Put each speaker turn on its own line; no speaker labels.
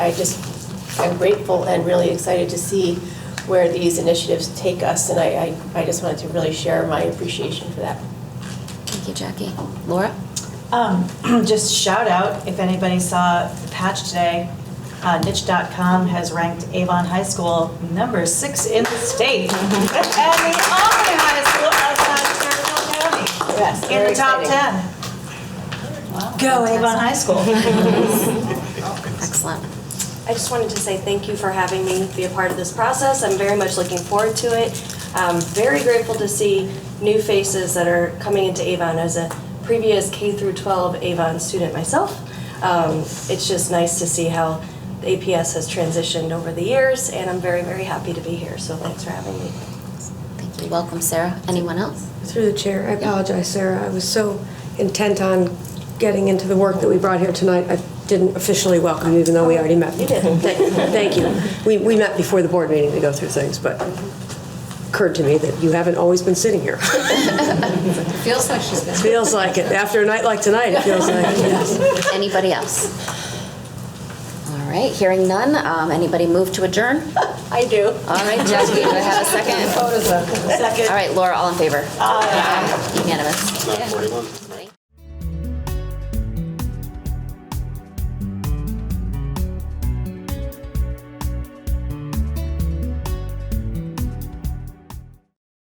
I just am grateful and really excited to see where these initiatives take us, and I, I I just wanted to really share my appreciation for that.
Thank you, Jackie. Laura?
Um, just shout out, if anybody saw the patch today, uh, niche.com has ranked Avon High School number six in the state. And the only high school outside of Fairfield County
Yes,
in
very
the top
exciting.
10. Go Avon High School.
Excellent.
I just wanted to say thank you for having me be a part of this process. I'm very much looking forward to it. I'm very grateful to see new faces that are coming into Avon as a previous K through 12 Avon student myself. Um, it's just nice to see how the APS has transitioned over the years, and I'm very, very happy to be here. So thanks for having me.
Thank you. Welcome, Sarah. Anyone else?
Through the chair, I apologize, Sarah. I was so intent on getting into the work that we brought here tonight, I didn't officially welcome you, even though we already met. You did. Thank you. We, we met before the board meeting to go through things, but occurred to me that you haven't always been sitting here.
Feels like she's been.
Feels like it. After a night like tonight, it feels like, it, yes.
Anybody else? All right, hearing none. Um, Anybody move to adjourn?
I do.
All right, Jackie, do I have a second? All right, Laura, all in favor? Aye. Unanimous.
Not 41.